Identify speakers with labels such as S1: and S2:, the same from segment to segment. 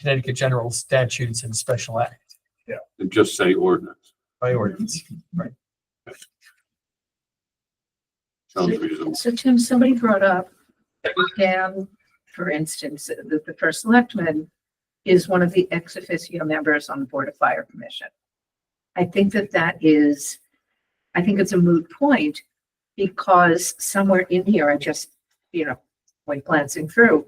S1: Connecticut general statutes and special act
S2: and just say ordinance.
S1: by ordinance.
S2: Sounds reasonable.
S3: So Tim, somebody brought up, Dan, for instance, that the first selectman is one of the ex officio members on the Board of Fire Commission. I think that that is, I think it's a moot point because somewhere in here, I just, you know, when glancing through,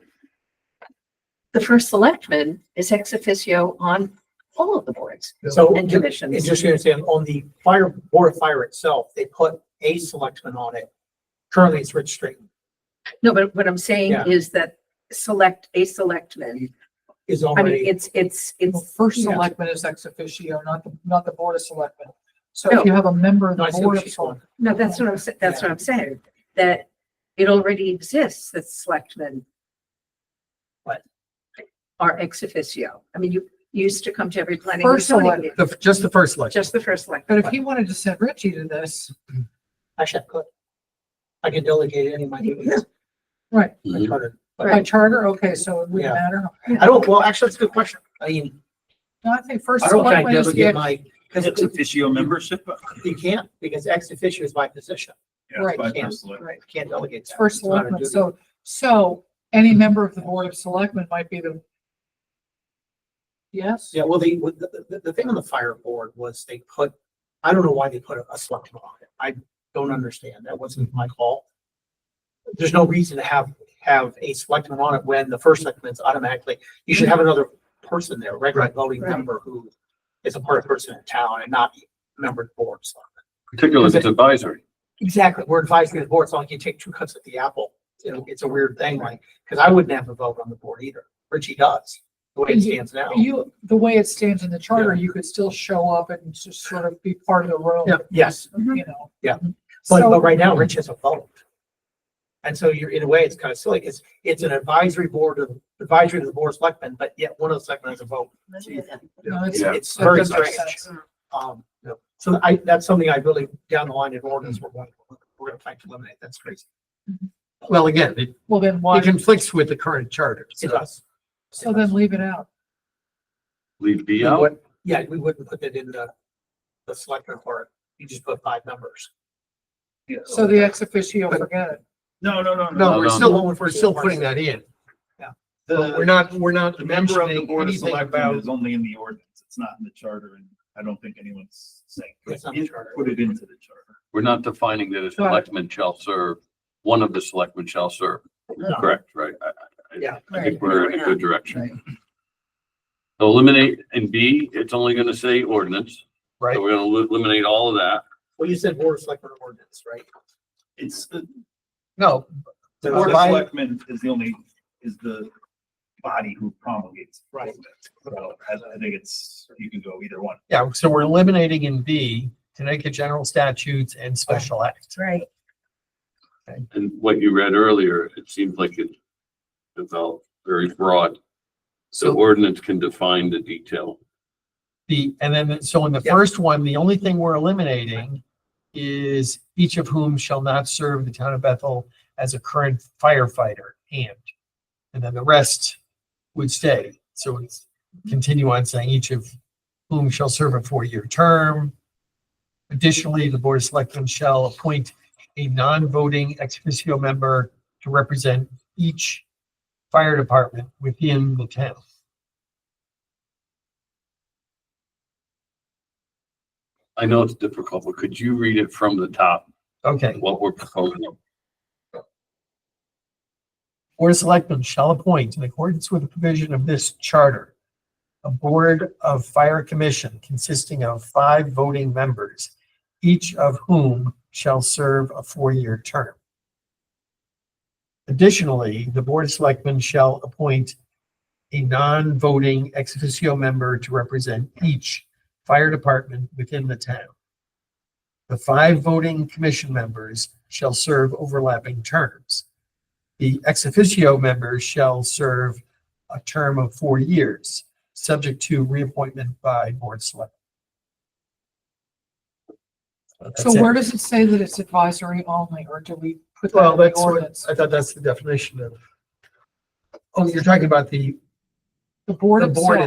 S3: the first selectman is ex officio on all of the boards
S4: So,
S3: and
S4: ju-
S3: commissions.
S4: and just so you understand, on the fire, board of fire itself, they put a selectman on it. Currently, it's Rich Straighten
S3: No, but what I'm saying
S4: Yeah.
S3: is that select, a selectman,
S4: is
S3: I mean,
S4: already.
S3: it's, it's,
S5: Well,
S3: it's.
S5: First
S4: Yeah.
S5: selectman is ex officio, not the, not the board of selectmen. So
S3: No.
S5: if you have a member of
S4: No, I
S5: the
S4: see
S5: board
S4: what
S5: of
S4: she's going.
S5: selectmen,
S3: No, that's what I'm, sa- that's what I'm saying, that it already exists that selectmen
S4: What?
S3: are ex officio. I mean, you you used to come to every planning. and
S5: First
S3: zoning
S5: select-
S3: meeting,
S1: The, just the first election.
S3: Just the first select.
S5: but if you wanted to send Richie to this,
S4: Actually, I could. I could delegate any of my duties.
S5: Right.
S4: I try to-
S5: by charter, okay, so it
S4: Yeah.
S5: wouldn't matter.
S4: I don't, well, actually, that's a good question. I mean,
S5: No, I think first
S4: I don't think I
S5: selectman is the,
S4: delegate
S5: ex-
S4: my, because
S6: It's officio membership.
S4: you can't, because ex officio is my position.
S6: Yeah, it's
S5: Right.
S6: by
S4: Can't.
S6: personal.
S5: right,
S4: I can't delegate.
S5: it's
S4: that.
S5: first
S4: It's not a
S5: selectman,
S4: duty.
S5: so, so any member of the board of selectmen might be the. Yes?
S4: Yeah, well, they, with the, the, the thing on the fire board was they put, I don't know why they put a, a selectman on it. I don't understand. That wasn't my call. There's no reason to have, have a selectman on it when the first selectman's automatically, you should have another person there, regular voting
S3: Right.
S4: member who is a part of person in town and not a member of the board. so.
S2: Particularly if it's advisory.
S4: Exactly. We're advising the board. It's not like you take two cuts at the apple. You know, it's a weird thing, like, because I wouldn't have a vote on the board either. Richie does, the way it stands now.
S5: You, the way it stands in the charter, you could still show up and just sort of be part of the room,
S4: Yes.
S5: you know? Mm-hmm.
S4: Yeah. But,
S5: So-
S4: but right now, Rich has a vote. And so you're, in a way, it's kind of silly. It's, it's an advisory board of, advisory to the board of selectmen, but yet one of the selectmen has a vote.
S5: No, it's-
S2: Yeah.
S4: It's
S5: that
S4: very
S5: doesn't make
S4: strange.
S5: sense.
S4: Um, no. so I, that's something I really, down the line in ordinance, we're going, we're gonna try to eliminate. That's crazy.
S7: Well, again, it
S5: Well, then
S7: it
S5: why,
S7: conflicts with the current charter.
S4: It
S7: So
S4: does.
S5: so then leave it out.
S2: Leave B
S4: We
S2: out.
S4: wouldn't- Yeah, we wouldn't put that in the, the selectmen part. You just put five numbers.
S5: So the ex officio, forget it.
S6: No, no, no, no.
S7: No, we're
S2: no,
S4: no.
S7: still, we're still putting that in. But we're
S6: The
S7: not, we're not
S6: the member of the
S7: mentioning
S6: board of
S7: anything
S6: selectmen
S7: about,
S6: is only in the ordinance. It's not in the charter and I don't think anyone's saying.
S4: It's not in the charter.
S6: Put it into the charter.
S2: We're not defining that a
S5: Right.
S2: selectman shall serve, one of the selectmen shall serve.
S4: No.
S2: Correct, right? I- I- I-
S4: Yeah.
S2: I think we're in a good
S1: Right.
S2: direction. So eliminate in B, it's only gonna say ordinance.
S1: Right.
S2: So we're gonna li- eliminate all of that.
S4: Well, you said board of selectmen ordinance, right?
S6: It's the,
S1: No,
S6: the
S4: Or
S6: board of
S4: by-
S6: selectmen is the only, is the body who promulgates.
S4: Right.
S6: So I, I think it's, you can go either one.
S1: yeah, so we're eliminating in B Connecticut general statutes and special act.
S3: Right.
S2: And what you read earlier, it seems like it developed very broad. So
S1: So
S2: ordinance can define the detail.
S1: the, and then, so in the
S4: Yeah.
S1: first one, the only thing we're eliminating is each of whom shall not serve the town of Bethel as a current firefighter and, and then the rest would stay. So it's continue on saying each of whom shall serve a four-year term. Additionally, the Board of Selectmen shall appoint a non-voting ex officio member to represent each fire department within the town.
S2: I know it's difficult, but could you read it from the top,
S1: Okay.
S2: what we're proposing?
S1: Board of Selectmen shall appoint, in accordance with the provision of this charter, a Board of Fire Commission consisting of five voting members, each of whom shall serve a four-year term. Additionally, the Board of Selectmen shall appoint a non-voting ex officio member to represent each fire department within the town. The five voting commission members shall serve overlapping terms. The ex officio members shall serve a term of four years, subject to reappointment by board select.
S5: So
S1: That's it.
S5: where does it say that it's advisory only, or do we put that
S7: well,
S5: in the
S7: that's what,
S5: ordinance?
S7: I thought that's the definition of. Oh, you're talking about the
S5: The board
S7: The board
S5: itself.